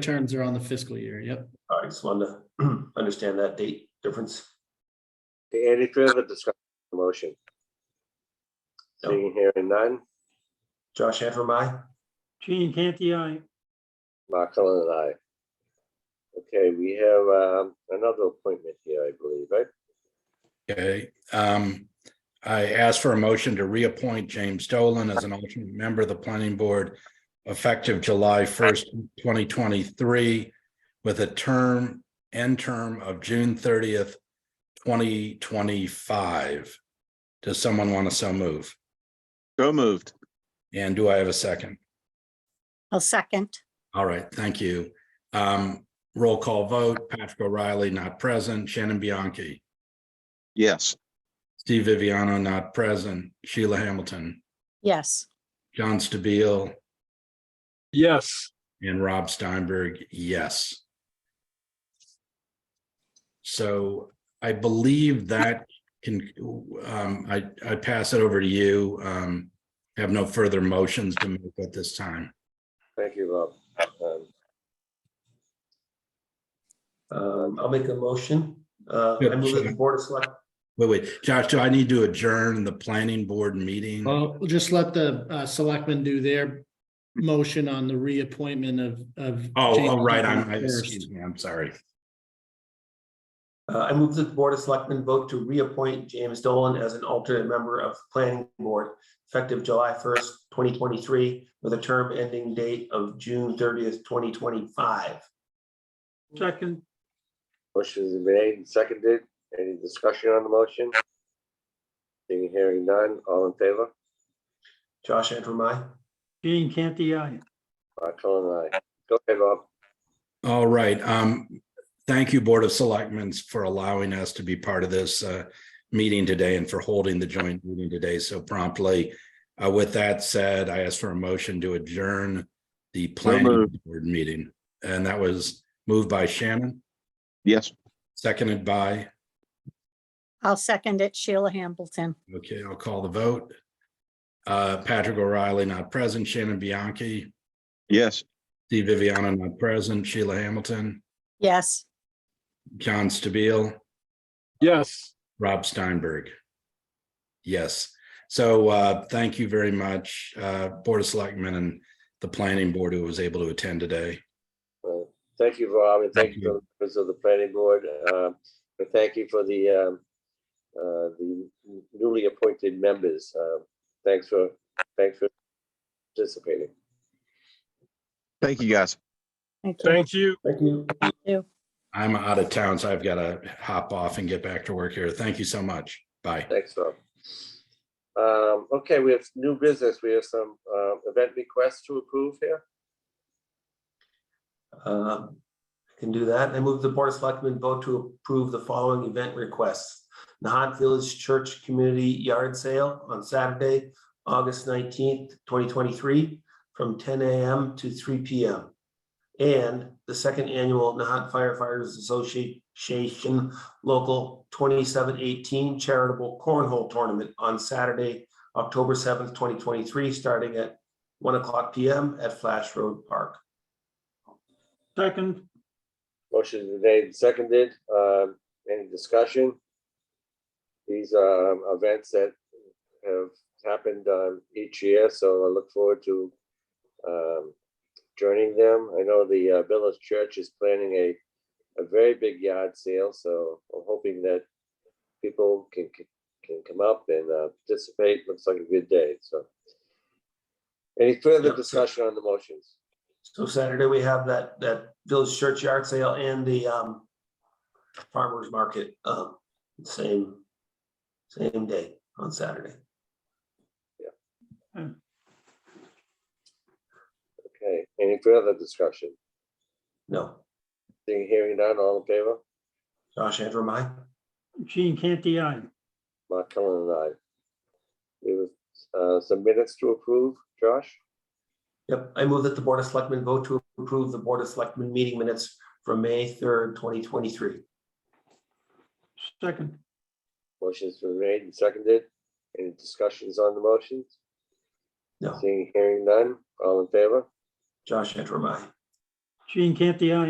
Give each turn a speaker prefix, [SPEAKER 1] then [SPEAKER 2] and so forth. [SPEAKER 1] terms are on the fiscal year, yep.
[SPEAKER 2] All right, just wanted to understand that date difference.
[SPEAKER 3] Okay, Any further discussion, on the motion?
[SPEAKER 2] No.
[SPEAKER 3] Seeing here and none,
[SPEAKER 2] Josh Antrim, aye?
[SPEAKER 4] Gene Canty, I.
[SPEAKER 3] Mark Cullen and I. Okay, we have um, another appointment here, I believe, right?
[SPEAKER 5] Okay, um, I asked for a motion to reappoint James Dolan as an alternate member of the planning board effective July first, twenty twenty-three, with a term, end term of June thirtieth, twenty twenty-five. Does someone want to so move?
[SPEAKER 6] So moved.
[SPEAKER 5] And do I have a second?
[SPEAKER 7] I'll second.
[SPEAKER 5] All right, thank you. Um, roll call vote, Patrick O'Reilly not present, Shannon Bianchi,
[SPEAKER 6] Yes.
[SPEAKER 5] Steve Viviano not present, Sheila Hamilton,
[SPEAKER 7] Yes.
[SPEAKER 5] John Stabile,
[SPEAKER 4] Yes.
[SPEAKER 5] And Rob Steinberg, yes. So I believe that can, um, I, I pass it over to you. Um, have no further motions to make at this time.
[SPEAKER 3] Thank you, Rob. Um,
[SPEAKER 2] Um, I'll make a motion. Uh,
[SPEAKER 5] Yeah,
[SPEAKER 2] I move that the
[SPEAKER 5] sure.
[SPEAKER 2] Board of Select,
[SPEAKER 5] Wait, wait, Josh, do I need to adjourn the planning board meeting?
[SPEAKER 1] Well, we'll just let the uh, selectmen do their motion on the reappointment of, of.
[SPEAKER 5] Oh,
[SPEAKER 1] James
[SPEAKER 5] oh, right, I'm, I-
[SPEAKER 1] Dolan
[SPEAKER 5] excuse
[SPEAKER 1] first.
[SPEAKER 5] me, I'm sorry.
[SPEAKER 2] uh, I move that the Board of Selectmen vote to reappoint James Dolan as an alternate member of the Planning Board effective July first, twenty twenty-three, with a term ending date of June thirtieth, twenty twenty-five.
[SPEAKER 4] Second,
[SPEAKER 3] Motion is made and seconded. Any discussion on the motion? Seeing here and none, all in favor?
[SPEAKER 2] Josh Antrim, aye?
[SPEAKER 4] Gene Canty, I.
[SPEAKER 3] Mark Cullen and I. Go ahead, Rob.
[SPEAKER 5] All right, um, thank you, Board of Selectmen, for allowing us to be part of this uh meeting today and for holding the joint meeting today so promptly. Uh, with that said, I ask for a motion to adjourn the planning
[SPEAKER 6] moved.
[SPEAKER 5] board meeting, and that was moved by Shannon,
[SPEAKER 6] Yes.
[SPEAKER 5] seconded by,
[SPEAKER 7] I'll second it. Sheila Hamilton.
[SPEAKER 5] okay, I'll call the vote. Uh, Patrick O'Reilly not present, Shannon Bianchi,
[SPEAKER 6] Yes.
[SPEAKER 5] Steve Viviano not present, Sheila Hamilton,
[SPEAKER 7] Yes.
[SPEAKER 5] John Stabile.
[SPEAKER 4] Yes.
[SPEAKER 5] Rob Steinberg. Yes, so uh, thank you very much, uh, Board of Selectmen and the Planning Board who was able to attend today.
[SPEAKER 3] Well, Thank you, Rob, and thank
[SPEAKER 5] Thank
[SPEAKER 3] you to the members of the planning board. um, And thank you for the, um, uh, the newly appointed members. Uh, Thanks for, thanks for participating.
[SPEAKER 6] Thank you, guys.
[SPEAKER 7] Thank you.
[SPEAKER 4] Thank you.
[SPEAKER 2] Thank you.
[SPEAKER 5] I'm out of town, so I've got to hop off and get back to work here. Thank you so much. Bye.
[SPEAKER 3] Thanks, Rob. Um, Okay, we have new business. We have some uh, event requests to approve here.
[SPEAKER 2] Um, I Can do that. I move the Board of Selectmen vote to approve the following event requests. Nahat Village Church Community Yard Sale on Saturday, August nineteenth, twenty twenty-three, from ten AM to three PM. And the second annual Nahat Firefighters Association Local twenty-seven eighteen Charitable Cornhole Tournament on Saturday, October seventh, twenty twenty-three, starting at one o'clock PM at Flash Road Park.
[SPEAKER 4] Second,
[SPEAKER 3] Motion is made and seconded. Um, Any discussion? These are events that have happened um, each year, so I look forward to um, joining them. I know the uh, Village Church is planning a, a very big yard sale, so I'm hoping that people can, can- can come up and uh, participate. Looks like a good day, so. Any further
[SPEAKER 2] Yep.
[SPEAKER 3] discussion on the motions?
[SPEAKER 2] So Saturday, we have that, that village church yard sale and the um farmer's market, um, same, same day on Saturday.
[SPEAKER 3] Okay, any further discussion?
[SPEAKER 2] No,
[SPEAKER 3] Seeing, hearing none, all in favor?
[SPEAKER 2] Josh Antrim, aye?
[SPEAKER 4] Gene Canty, I.
[SPEAKER 3] Mark Cullen and I. We have uh, some minutes to approve, Josh?
[SPEAKER 2] Yep, I move that the Board of Selectmen vote to approve the Board of Selectmen meeting minutes from May third, twenty twenty-three.
[SPEAKER 4] Second,
[SPEAKER 3] Motion's been made and seconded. Any discussions on the motions?
[SPEAKER 2] No,
[SPEAKER 3] Seeing, hearing none, all in favor?
[SPEAKER 2] Josh Antrim, aye?
[SPEAKER 4] Gene Canty, aye.